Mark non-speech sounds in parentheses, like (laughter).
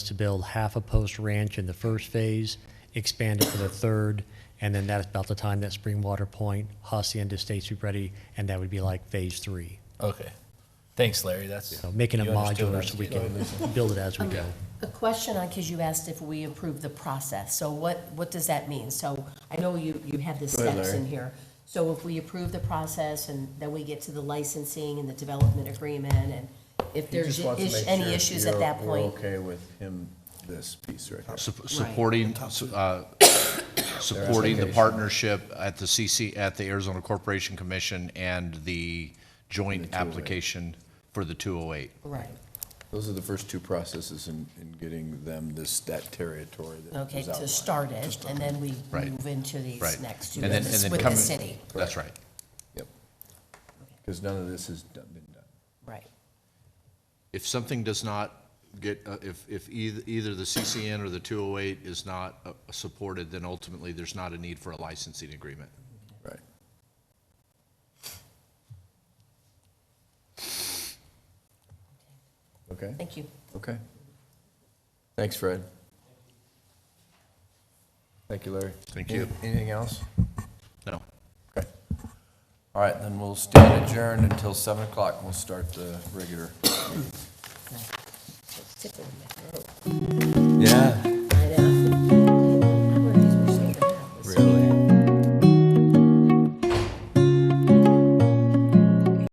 to build half a post ranch in the first phase, expand it for the third, and then that's about the time that Springwater Point Hacienda Estates would be ready, and that would be like phase three. Okay. Thanks, Larry. That's. So making it you understood what modular I was so we getting can build it as we go. A question on, because you asked if we approve the process, so what, what does that mean? So I know you, you have the ahead, steps Larry. in here. So if we approve the process and then we get to the licensing and the development agreement and if He there's just wants to is- make any sure issues at you're- that point, We're okay with him, this piece right here. Sup- Supporting, (coughs) uh, supporting the application. partnership at the CC, at the Arizona Corporation Commission and the joint And the 208. application for the 208. right, Those are the first two processes in, in getting them this, that territory that was okay, to outlined. start it, and then we Right. move into these Right. next two And then- with and the then with the come- city, That's right. Yep. Because none of this has done- been done. right. If something does not get, uh, if, if either, either the CCN or the 208 is not uh, supported, then ultimately there's not a need for a licensing agreement. Right. Okay, Thank you. okay. Thanks, Fred. Thank you, Larry. Thank you. Any- Anything else? No. Okay. All right, then we'll stand adjourned until 7 o'clock. We'll start the regular. Stick with me. Yeah.